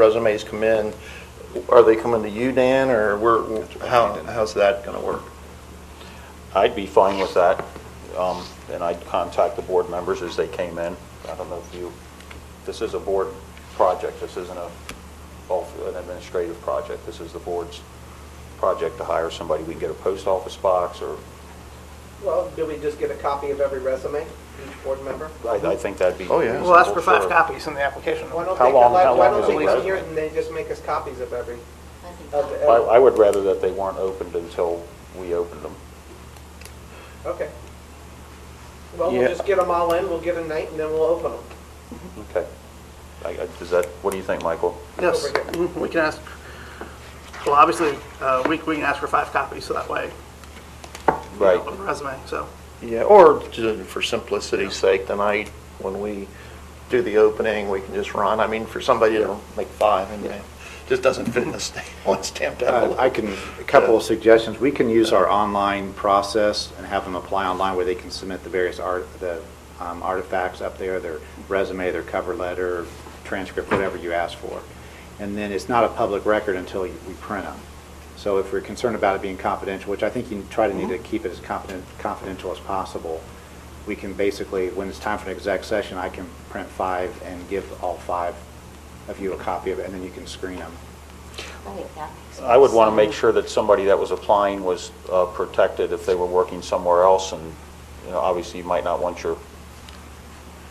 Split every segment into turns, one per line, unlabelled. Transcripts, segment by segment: resumes come in, are they coming to you, Dan, or where, how, how's that going to work?
I'd be fine with that, um, and I'd contact the board members as they came in. I don't know if you, this is a board project, this isn't a, both an administrative project, this is the board's project to hire somebody. We can get a post office box, or,
Well, do we just get a copy of every resume, each board member?
I, I think that'd be.
Oh, yeah.
reasonable,
We'll ask for five
sure.
copies in the application.
Why don't
How
they
long-
collect-
how
Why
long
don't
is
they
the
come
resume?
here and then just make us copies of every,
I think
of the,
I, I would rather that they weren't opened until we opened them.
okay. Well,
Yeah.
we'll just get them all in, we'll get a night, and then we'll open them.
Okay. I, I, is that, what do you think, Michael?
Yes,
Over here.
mhm, we can ask, well, obviously, uh, we, we can ask for five copies, so that way, you know,
Right.
of the resume, so.
Yeah, or ju- for simplicity's sake, tonight, when we do the opening, we can just run, I mean, for somebody to make five, and it just doesn't fit in the state, one stamped
Uh,
out.
I can, a couple of suggestions. We can use our online process and have them apply online where they can submit the various art, the um, artifacts up there, their resume, their cover letter, transcript, whatever you ask for. And then it's not a public record until you- we print them. So if we're concerned about it being confidential, which I think you try to need to keep it as confident, confidential as possible, we can basically, when it's time for an exec session, I can print five and give all five of you a copy of it, and then you can screen them.
I think that makes sense.
I would want to make sure that somebody that was applying was uh, protected if they were working somewhere else, and, you know, obviously, you might not want your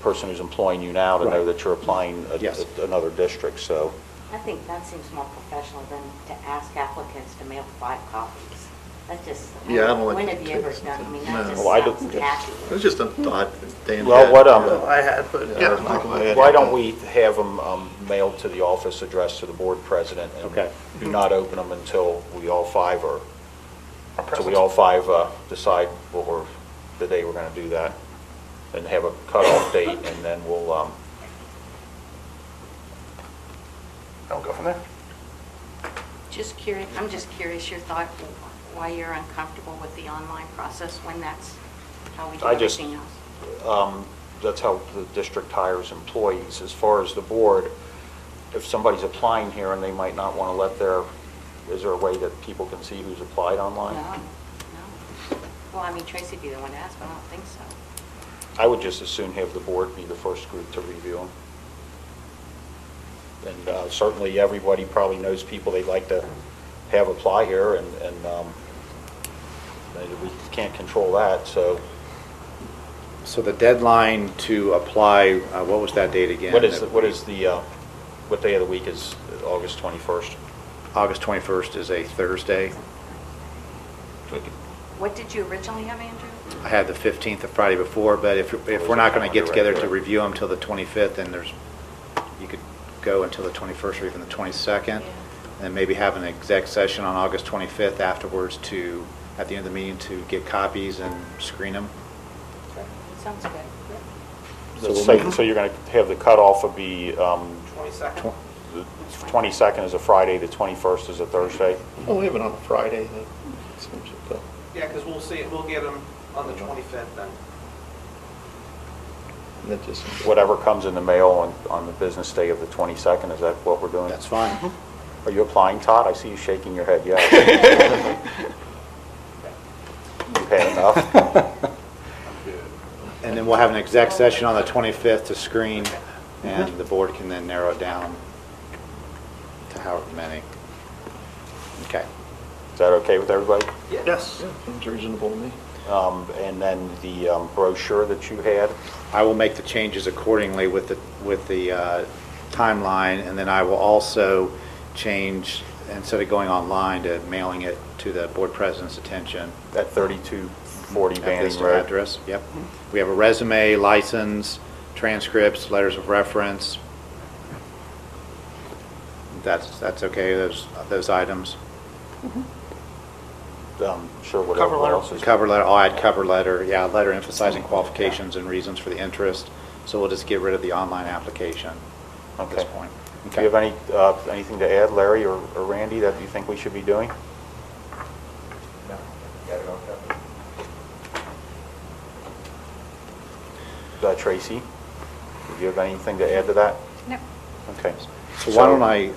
person who's employing you now to know
Right.
that you're applying at-
Yes.
at another district, so,
I think that seems more professional than to ask applicants to mail five copies. That just, I
Yeah, I don't
mean,
like
when
to
have you
do
ever
that.
done, I mean,
No.
that just
Well, I don't-
sounds tacky.
It's just a thought, Dan.
Well,
had.
what, um,
I had, but,
Yeah,
yeah,
Michael, go ahead.
why don't we have them mailed to the office, addressed to the board president?
Okay.
And do not open them until we all five are, until we all five uh, decide what we're, the day we're going to do that, and have a cutoff date, and then we'll, um,
I'll go from there.
Just curious, I'm just curious your thought, why you're uncomfortable with the online process when that's how we do
I just-
everything else.
um, that's how the district hires employees. As far as the board, if somebody's applying here and they might not want to let their, is there a way that people can see who's applied
No,
online?
no. Well, I mean, Tracy'd be the one to ask, but I don't think so.
I would just as soon have the board be the first group to review them. And uh, certainly, everybody probably knows people they'd like to have apply here, and, and um, we can't control that, so
So the deadline to apply, uh, what was that date again?
what is, the- what is the, uh, what day of the week is August 21st?
August 21st is a Thursday.
What did you originally have, Andrew?
I had the 15th, the Friday before, but if, if we're not going to get together to review them till the 25th, then there's, you could go until the 21st or even the 22nd, and maybe have an exec session on August 25th afterwards to, at the end of the meeting, to get copies and screen them.
Sounds good.
So so you're going to have the cutoff would be, um,
22nd.
the 22nd is a Friday, the 21st is a Thursday?
We'll have it on a Friday, that seems to,
Yeah, because we'll see, it. we'll get them on the 25th then.
that just seems.
Whatever comes in the mail on, on the business day of the 22nd, is that what we're doing?
That's fine.
Are you applying, Todd? I see you shaking your head, yes. You've had enough.
And then we'll have an exec session on the 25th to screen, and the board can then narrow it down to however many. Okay.
Is that okay with everybody?
Yes,
Seems reasonable to me.
Um, And then the um, brochure that you had,
I will make the changes accordingly with the, with the uh, timeline, and then I will also change, instead of going online, to mailing it to the board president's attention.
at 3240
at this
Banning Road.
Address, yep. We have a resume, license, transcripts, letters of reference. That's, that's okay, those, those items.
Um, Sure, whatever
Cover letter.
else is.
Cover letter, I'll add cover letter, yeah, letter emphasizing qualifications and reasons for the interest. So we'll just get rid of the online application at this
Okay.
point.
Do you have any, uh, anything to add, Larry or or Randy, that you think we should be doing? Uh, Tracy, do you have anything to add to that?
No.
Okay.
So why don't I,